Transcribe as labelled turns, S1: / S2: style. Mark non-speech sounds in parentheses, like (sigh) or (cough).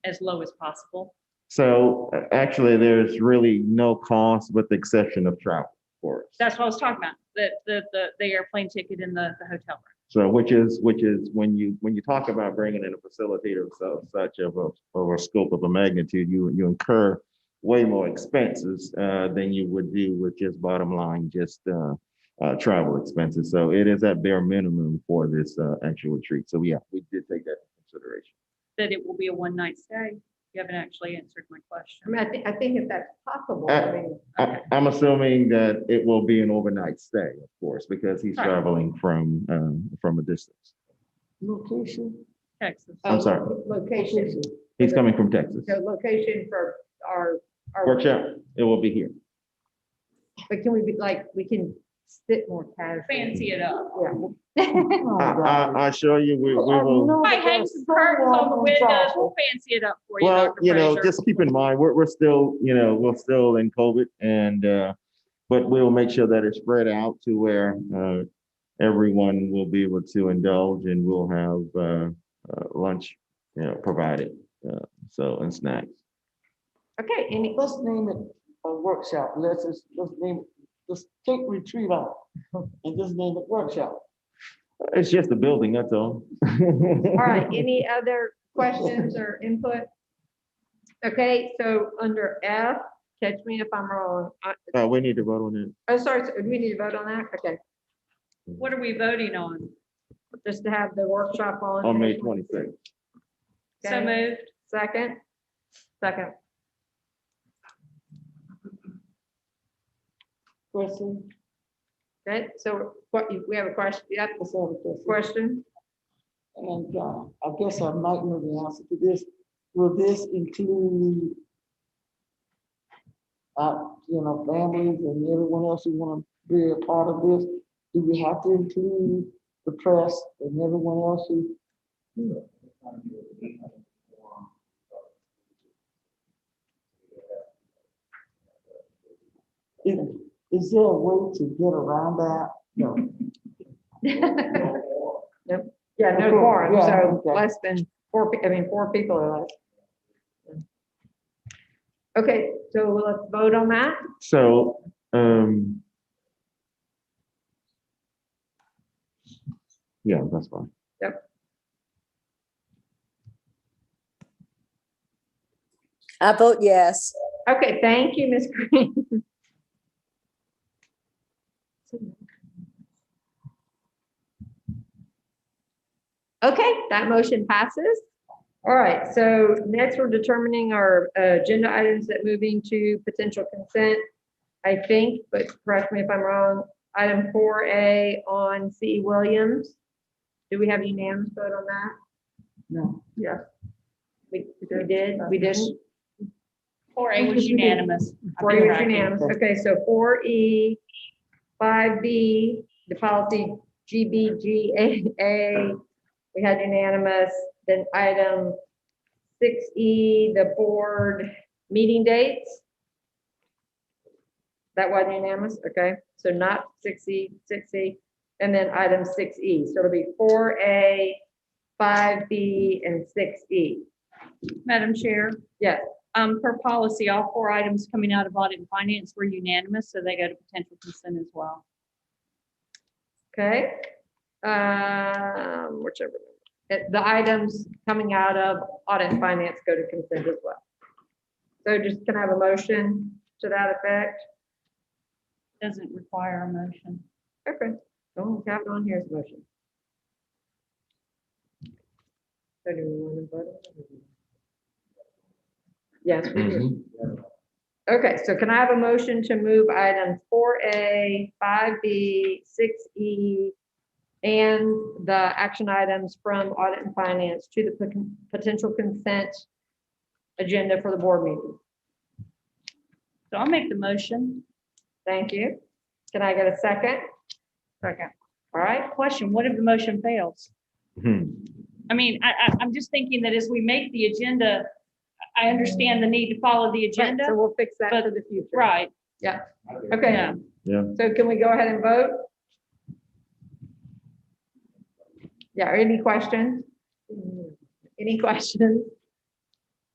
S1: as low as possible.
S2: So uh, actually, there's really no cost with the exception of travel for us.
S1: That's what I was talking about, the, the, the, the airplane ticket and the, the hotel room.
S2: So which is, which is when you, when you talk about bringing in a facilitator of so- such of a, of a scope of a magnitude, you, you incur way more expenses uh, than you would do with just bottom line, just uh, uh, travel expenses. So it is at bare minimum for this uh, actual retreat. So yeah, we did take that into consideration.
S1: That it will be a one night stay. You haven't actually answered my
S3: I mean,
S1: question.
S3: I think, I think if that's possible, I
S2: Uh,
S3: mean,
S2: I, I'm assuming that it will be an overnight stay, of course, because he's
S1: Right.
S2: traveling from, um, from a distance.
S4: Location,
S1: Texas.
S2: I'm
S3: uh,
S2: sorry.
S3: lo- Location,
S2: He's coming from Texas.
S3: the location for our, our.
S2: Workshop, it will be here.
S3: But can we be like, we can sit more casual?
S1: Fancy it up.
S4: Oh,
S2: I,
S4: God. Oh,
S2: I, I assure you, we, we
S4: Well, I
S2: will.
S4: know
S1: I
S4: that
S1: hang
S4: there's
S1: some curtains on the
S4: someone
S1: windows.
S4: travel.
S1: Oh, We'll fancy it up for you,
S2: Well,
S1: Dr.
S2: you know,
S1: Fraser.
S2: just keep in mind, we're, we're still, you know, we're still in COVID and, uh, but we'll make sure that it's spread out to where, uh, everyone will be able to indulge and we'll have, uh, uh, lunch, you know, provided, uh, so, and snacks.
S3: Okay, any,
S4: Let's name it a workshop. Let's, just- let's name, it. let's take retreat out (laughs) and just name it workshop.
S2: It's just the building, that's all.
S3: all right, any other questions or input? Okay, so under F, catch me if I'm wrong. I-
S2: (laughs) Uh, we need to vote on it.
S3: Oh, sorry, so do we need to vote on that? Okay,
S1: What are we voting on?
S3: just to have the workshop on.
S2: On May twenty-sixth.
S1: So
S3: Okay.
S1: moved.
S3: Second? Second.
S4: Question,
S3: Okay, so what, we have a question, yeah,
S4: let's have a question.
S3: (laughs) question?
S4: And uh, I guess I might know the answer to this. Will this include uh, you know, families and everyone else who want to be a part of this? Do we have to include the press and everyone else who? Is, is there a way to get around that? No.
S3: Yeah, no quorum,
S4: Yeah,
S3: so
S4: okay.
S3: less than four, pe- I mean, four people or less. Okay, so let's vote on that.
S2: So, um. Yeah, that's fine.
S5: I vote yes.
S3: Okay, thank you, Ms. Green. Okay, that motion passes. All right, so next we're determining our uh, agenda items that move into potential consent, I think, but correct me if I'm wrong. Item four A on C. E Williams. Do we have unanimous vote on that?
S4: No.
S3: Yes. We we did, we didn't?
S1: Four A was unanimous. I've been
S3: Four E was
S1: tracking.
S3: unanimous. Okay, so four E, five B, the policy GBGAA, we had unanimous. Then item six E, the board meeting dates. That wasn't unanimous, okay? So not six E, six E, and then item six E. So it'll be four A, five B, and six E.
S1: Madam Chair?
S3: Yes.
S1: Um, per policy, all four items coming out of audit and finance were unanimous, so they go to potential consent as well.
S3: Okay, um, whichever. Uh, The items coming out of audit and finance go to consent as well. So just can I have a motion to that effect?
S1: Doesn't require a motion.
S3: Okay, don't have it on here as a motion. So do we want to vote? on it? Yes, we do. Okay, so can I have a motion to move items four A, five B, six E, and the action items from audit and finance to the poten- potential consent agenda for the board meeting?
S1: So I'll make the motion.
S3: Thank you. Can I get a second?
S1: Second.
S3: All right,
S1: Question, what if the motion fails?
S2: Hmm.
S1: I mean, I, I, I'm just thinking that as we make the agenda, I understand the need to follow the
S3: right, so
S1: agenda.
S3: we'll fix that for the future.
S1: Right,
S3: Okay,
S1: yeah.
S3: so can we go ahead and vote? Yeah, any questions? Any questions?